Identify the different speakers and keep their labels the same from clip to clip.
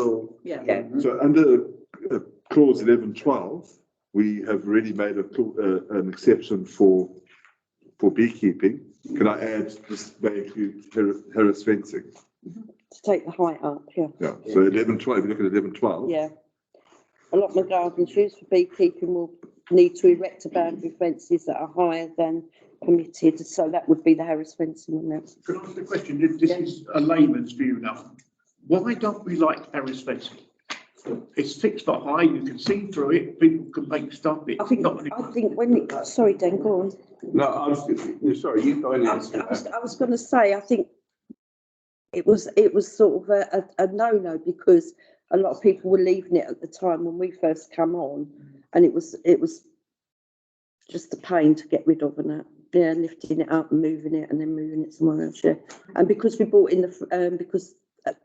Speaker 1: Well,
Speaker 2: Yeah.
Speaker 3: Yeah.
Speaker 1: so under uh, clause eleven twelve, we have already made a, cla- uh, an exception for, for beekeeping. Can I add, this may include har- harris fencing?
Speaker 4: to take the height up, yeah,
Speaker 1: Yeah, so eleven twelve, if you look at eleven twelve.
Speaker 4: yeah. Allotment gardens used for beekeeping will need to erect a boundary fences that are higher than permitted, so that would be the Harris fencing on that.
Speaker 5: Can I ask a question? If This is a layman's view now. Why don't we like terrace fencing? It's six foot high, you can see through it, people can make stuff.
Speaker 4: I
Speaker 5: It's
Speaker 4: think,
Speaker 5: not. an-
Speaker 4: I think when it, sorry, Dan, go on.
Speaker 3: No, I was, sorry, you go
Speaker 4: I was, I was- I was gonna say, I think it was, it was sort of a, a, a no-no because a lot of people were leaving it at the time when we first come on and it was, it was just a pain to get rid of and that, yeah, lifting it up and moving it and then moving it somewhere else, yeah. And because we brought in the, f- um, because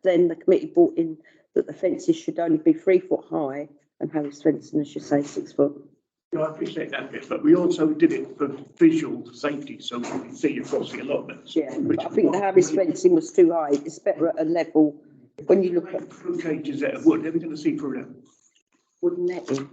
Speaker 4: then the committee brought in that the fences should only be three foot high and Harry's fencing, as you say, six foot.
Speaker 5: Yeah, I appreciate that bit, but we also did it for visual safety, so we can see across the allotments.
Speaker 4: Yeah,
Speaker 5: Which-
Speaker 4: but I think the Harry's fencing was too high, it's better at a level, when you look at
Speaker 5: Through cages out of wood, they're going to see through them.
Speaker 4: wooden netting.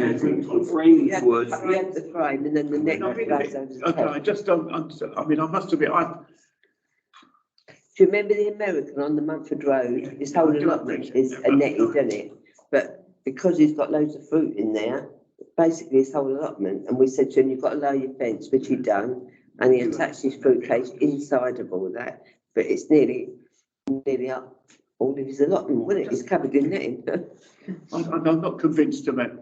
Speaker 3: Framing wood.
Speaker 4: You have the frame and then the net goes over the
Speaker 5: Okay, I
Speaker 4: top.
Speaker 5: just don't, understand. I mean, I must admit, I,
Speaker 6: Do you remember the American on the Mumford Road? His whole allotment is a netted, isn't it? But because he's got loads of fruit in there, basically his whole allotment, and we said to him, you've got to lower your fence, which he'd done. And he attached his fruit cage inside of all that, but it's nearly, nearly up all of his allotment, wasn't it? It's covered in netting.
Speaker 5: I- I'm, I'm not convinced about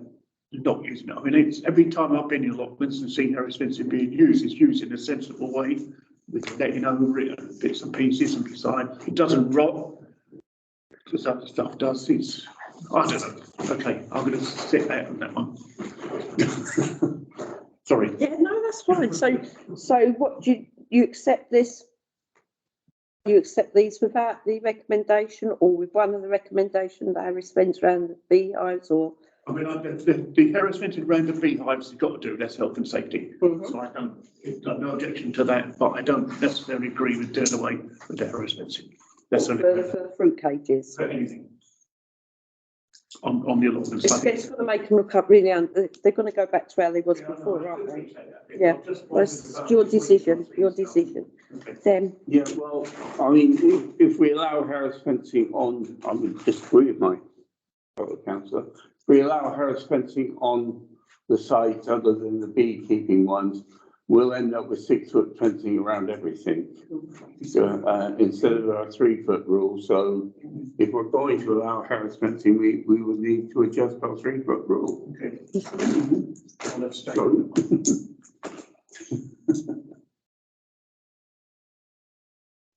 Speaker 5: not using it. I mean, it's, every time I've been in allotments and seen how expensive being used, it's used in a sensible way. With letting over it, and bits and pieces and beside, it doesn't rot. Because other stuff does, it's, I don't know. Okay, I'm gonna sit there on that one. Sorry.
Speaker 4: Yeah, no, that's fine. So, so what, do you, you accept this? You accept these without the recommendation or with one of the recommendation that Harry spends around the beehives or?
Speaker 5: I mean, I, the, the- the harassment around the beehives has got to do with that's health and safety.
Speaker 4: Mm-hmm.
Speaker 5: So I don't, I've got no objection to that, but I don't necessarily agree with doing away with the harassment. That's
Speaker 4: For,
Speaker 5: only.
Speaker 4: for fruit cages?
Speaker 5: for anything. On, on the allotment.
Speaker 4: It's, it's gonna make them look up really, un- they- they're gonna go back to where they was before, aren't they? Yeah, That's your decision, your decision. Then,
Speaker 3: Yeah, well, I mean, if, if we allow Harris fencing on, I would disagree with my fellow councillor. If we allow Harris fencing on the sites other than the beekeeping ones, we'll end up with six foot fencing around everything. So, uh, instead of our three foot rule, so if we're going to allow Harris fencing, we, we would need to adjust our three foot rule.
Speaker 5: Okay.
Speaker 3: So,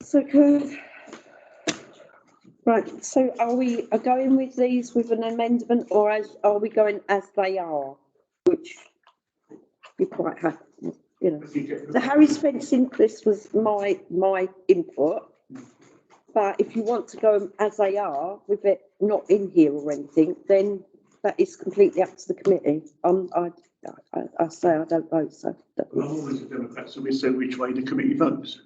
Speaker 4: so good. Right, so are we are going with these with an amendment or as, are we going as they are? Which be quite happy, you know. The Harry's fencing, this was my, my input. But if you want to go as they are with it not in here or anything, then that is completely up to the committee. Um, I, I, I say I don't vote, so.
Speaker 5: I'm always a Democrat, so we say which way the committee votes,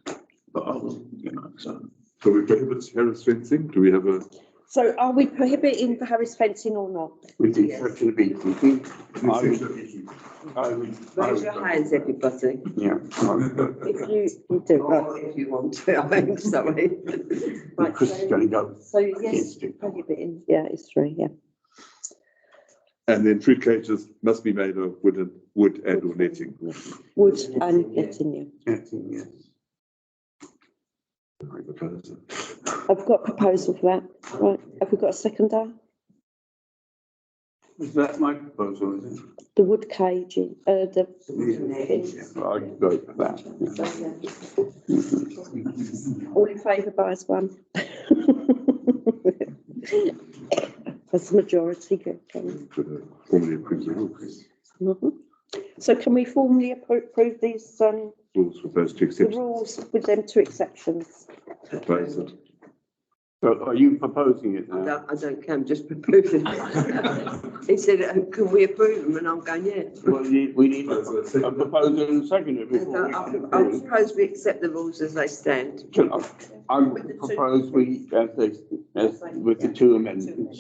Speaker 5: but I will, you know, so.
Speaker 1: So we prohibit harris fencing, do we have a,
Speaker 4: So are we prohibiting the Harry's fencing or not?
Speaker 3: with the exception of beekeeping, I
Speaker 1: an
Speaker 3: I would. I
Speaker 6: Raise
Speaker 3: would-
Speaker 6: your hands, everybody,
Speaker 3: Yeah. I would-
Speaker 4: If you, you do,
Speaker 3: Oh.
Speaker 4: right.
Speaker 6: or if you want to, I'm sorry.
Speaker 4: Right,
Speaker 3: Chris is
Speaker 4: so-
Speaker 3: gonna go.
Speaker 4: So yes,
Speaker 3: Against it.
Speaker 4: prohibiting, yeah, it's three, yeah.
Speaker 1: and then fruit cages must be made of wooden, wood and or netting.
Speaker 4: Wood and letting you.
Speaker 3: Acting, yes.
Speaker 4: I've got a proposal for that. Right, have we got a seconder?
Speaker 3: Is that my proposal, is it?
Speaker 4: The wood caging, uh, the.
Speaker 3: Yeah, I'd go for that. yeah.
Speaker 4: All in favour by as one. That's majority, good. Karen.
Speaker 1: Formally approve the rules,
Speaker 4: Mhm. So can we formally appro- approve these, um,
Speaker 1: rules for those two
Speaker 4: the
Speaker 1: exceptions.
Speaker 4: rules with them two exceptions?
Speaker 1: Propose it.
Speaker 3: So are you proposing it
Speaker 6: I
Speaker 3: now?
Speaker 6: don't, I don't care, I'm just proposing. He said, "Oh, can we approve them? And I'm going, yeah.
Speaker 3: Well, we need- we need a
Speaker 1: That's what I said.
Speaker 3: proposal and a second
Speaker 6: And
Speaker 3: before we
Speaker 6: I
Speaker 3: can
Speaker 6: I- I
Speaker 3: approve.
Speaker 6: suppose we accept the rules as they stand.
Speaker 3: I propose we, as they, as with the two amendments.